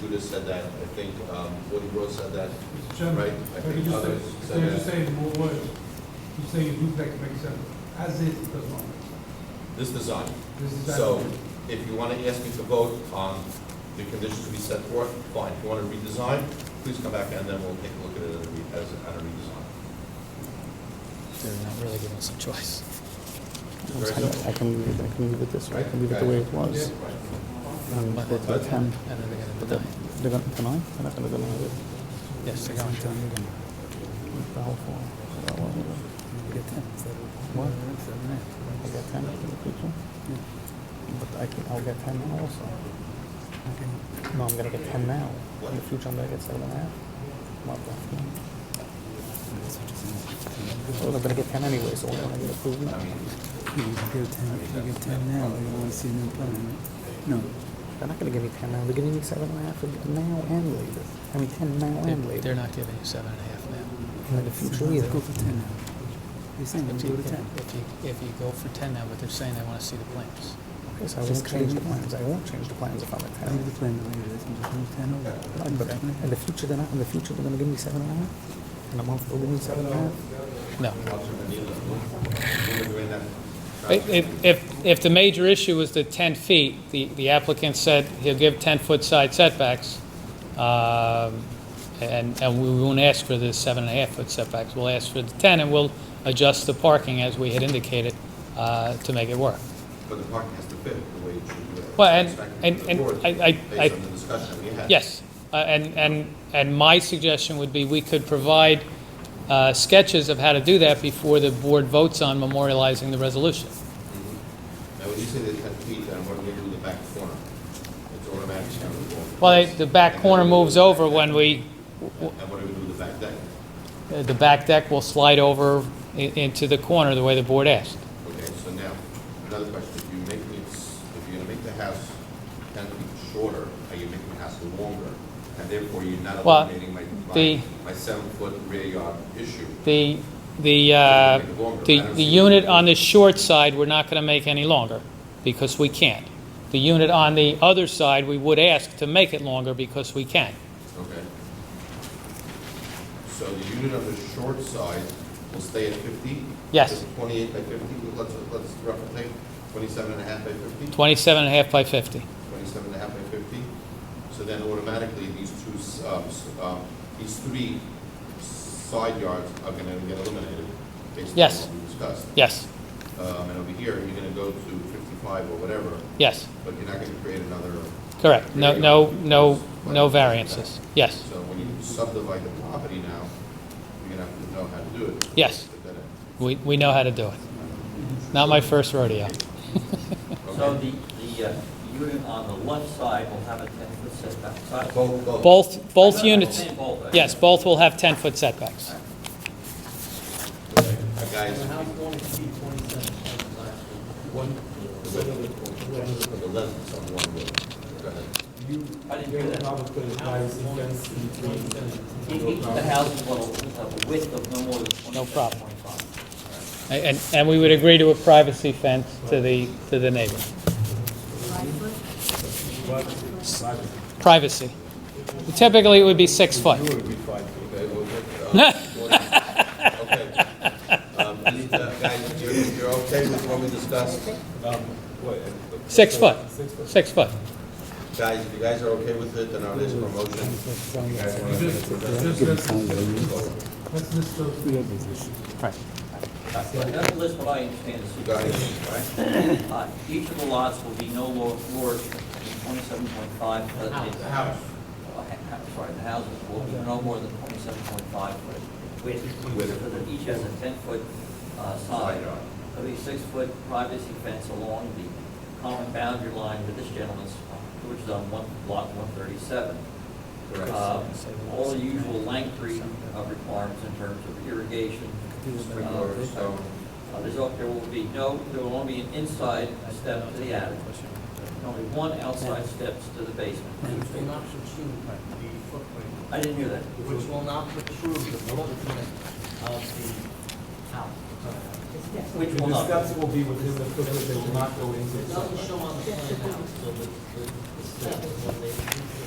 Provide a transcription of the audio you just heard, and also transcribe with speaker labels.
Speaker 1: Judas said that, I think, um, Woody Rose said that.
Speaker 2: Mr. Chairman,
Speaker 1: Right, I
Speaker 2: but he
Speaker 1: think
Speaker 2: just
Speaker 1: others
Speaker 2: said-
Speaker 1: said
Speaker 2: They're just
Speaker 1: that.
Speaker 2: saying more words. You're saying duplex makes sense. As is, it does not make sense.
Speaker 1: This design.
Speaker 2: This is as
Speaker 1: So
Speaker 2: is.
Speaker 1: if you want to ask me to vote on the conditions we set forth, fine. If you want to redesign, please come back and then we'll take a look at it as a re- as a- at a redesign.
Speaker 3: They're not really giving us a choice.
Speaker 1: Very simple.
Speaker 4: I can leave it, I can leave it this way, I can leave it the way it was. Um,
Speaker 3: But-
Speaker 4: but
Speaker 3: but-
Speaker 4: they can,
Speaker 3: And then they're
Speaker 4: they're
Speaker 3: gonna deny.
Speaker 4: gonna deny, they're not gonna deny it.
Speaker 3: Yes, they're going to.
Speaker 4: The whole form. So that wasn't good.
Speaker 3: Get ten.
Speaker 4: What? I get ten for the picture? But I can, I'll get ten now also. No, I'm gonna get ten now. In the future, I'm gonna get seven and a half. Not that. Well, I'm gonna get ten anyway, so why don't I get approved now?
Speaker 5: No.
Speaker 4: They're not gonna give me ten now, they're giving me seven and a half now and later. I mean, ten now and
Speaker 3: They're-
Speaker 4: later.
Speaker 3: They're not giving you seven and a half now.
Speaker 4: And in the future either.
Speaker 5: Go for ten now. They're saying
Speaker 3: If
Speaker 5: let's
Speaker 3: you,
Speaker 5: go to ten.
Speaker 3: if you, if you go for ten now, but they're saying they wanna see the plans.
Speaker 4: Okay, so I
Speaker 5: Just
Speaker 4: won't
Speaker 5: change
Speaker 4: change the
Speaker 5: it.
Speaker 4: plans, I won't change the plans if I'm at
Speaker 5: Leave the
Speaker 4: ten.
Speaker 5: plan the way it is and just move ten over.
Speaker 4: No, but
Speaker 3: Okay.
Speaker 4: In يعني the future, they're not, in the future, they're gonna give me seven and a half. In a month, they'll give me seven and a half.
Speaker 3: No.
Speaker 6: If- If, if, if the major issue is the 10 feet, the the applicant said he'll give 10-foot side setbacks, um, and, and we won't ask for the seven and a half foot setbacks. We'll ask for the 10, and we'll adjust the parking as we had indicated uh, to make it work.
Speaker 1: But the parking has to fit the way it should be.
Speaker 6: Well, and-
Speaker 1: It's back to
Speaker 6: and-
Speaker 1: the
Speaker 6: and
Speaker 1: board
Speaker 6: I- I- I-
Speaker 1: Based on the discussion we had.
Speaker 6: Yes, uh, and, and, and my suggestion would be we could provide uh, sketches of how to do that before the board votes on memorializing the resolution.
Speaker 1: Now, when you say the ten feet, then what do we do with the back corner? It's automatic. down the wall.
Speaker 6: Well, the back corner moves over when we,
Speaker 1: And what do we do with the back deck?
Speaker 6: Uh, The back deck will slide over i- into the corner the way the board asked.
Speaker 1: Okay, so now, another question, if you make it, s- if you're gonna make the house ten feet shorter, are you making the house longer? And therefore, you're not
Speaker 6: Well,
Speaker 1: eliminating my,
Speaker 6: the-
Speaker 1: my, my seven-foot rear yard issue.
Speaker 6: The, the, uh, the, the unit on the short side, we're not going to make any longer, because we can't. The unit on the other side, we would ask to make it longer because we can.
Speaker 1: Okay. So the unit on the short side will stay at fifty?
Speaker 6: Yes.
Speaker 1: Just Twenty-eight by fifty, let's, let's roughly take twenty-seven and a half by fifty?
Speaker 6: 27 and a half by 50.
Speaker 1: Twenty-seven and a half by fifty? So then automatically, these two, s- um, s- um, these three side yards are gonna get eliminated based on
Speaker 6: Yes.
Speaker 1: what we discussed.
Speaker 6: Yes,
Speaker 1: Um, and over here, you're gonna go to fifty-five or whatever,
Speaker 6: yes,
Speaker 1: but you're not gonna create another,
Speaker 6: correct. No, no, no, no variances. Yes,
Speaker 1: so when you subdivide the property now, you're gonna have to know how to do it.
Speaker 6: Yes.
Speaker 1: Put that in.
Speaker 6: we, we know how to do it. Not my first rodeo.
Speaker 7: So the, the uh, unit on the left side will have a ten-foot setback. Side-
Speaker 1: Both, both.
Speaker 6: Both, both
Speaker 7: No, no, I'm
Speaker 6: units,
Speaker 7: saying both, right?
Speaker 6: yes, both will have 10-foot setbacks.
Speaker 1: Okay, uh, Guys, one, the width of the left is on one road. Go ahead.
Speaker 7: I didn't hear that. Each of the houses will have a width of no more than
Speaker 6: No
Speaker 7: twenty-seven
Speaker 6: problem.
Speaker 7: point five.
Speaker 6: And, and we would agree to a privacy fence to the, to the neighbor. Privacy. Typically, it would be six foot.
Speaker 1: You would be fine. Okay, well, uh, okay. Um, and, uh, Guys, you're, you're okay with what we discussed?
Speaker 6: Six foot, six foot.
Speaker 1: Guys, if you guys are okay with it, then I'll ask for a motion. You guys wanna-
Speaker 2: Just, just, let's, let's list those.
Speaker 7: That's the list, what I understand is.
Speaker 1: Go ahead,
Speaker 7: Uh, Each of the lots will be no lo- lower than twenty-seven point five.
Speaker 1: The house.
Speaker 7: Sorry, the houses will be no more than twenty-seven point five foot width,
Speaker 1: Width.
Speaker 7: so that each has a ten-foot uh,
Speaker 1: Side
Speaker 7: side.
Speaker 1: yard.
Speaker 7: There'll be a six-foot privacy fence along the common boundary line with this gentleman's, which is on one, lot one thirty-seven. Uh,
Speaker 1: Correct.
Speaker 7: All the usual Langtree uh, requirements in terms of irrigation.
Speaker 1: Sprinkler,
Speaker 7: uh,
Speaker 1: stone.
Speaker 7: uh, There's, al- there will be no, there will only be an inside step to the attic, only one outside steps to the basement.
Speaker 8: Which will not protrude the footprint,
Speaker 7: I didn't hear that.
Speaker 8: which will not protrude the footprint of the house.
Speaker 7: Which will not.
Speaker 8: will be within the footprint, they will not go into. It doesn't show on the plan now, so the, the the steps, when they,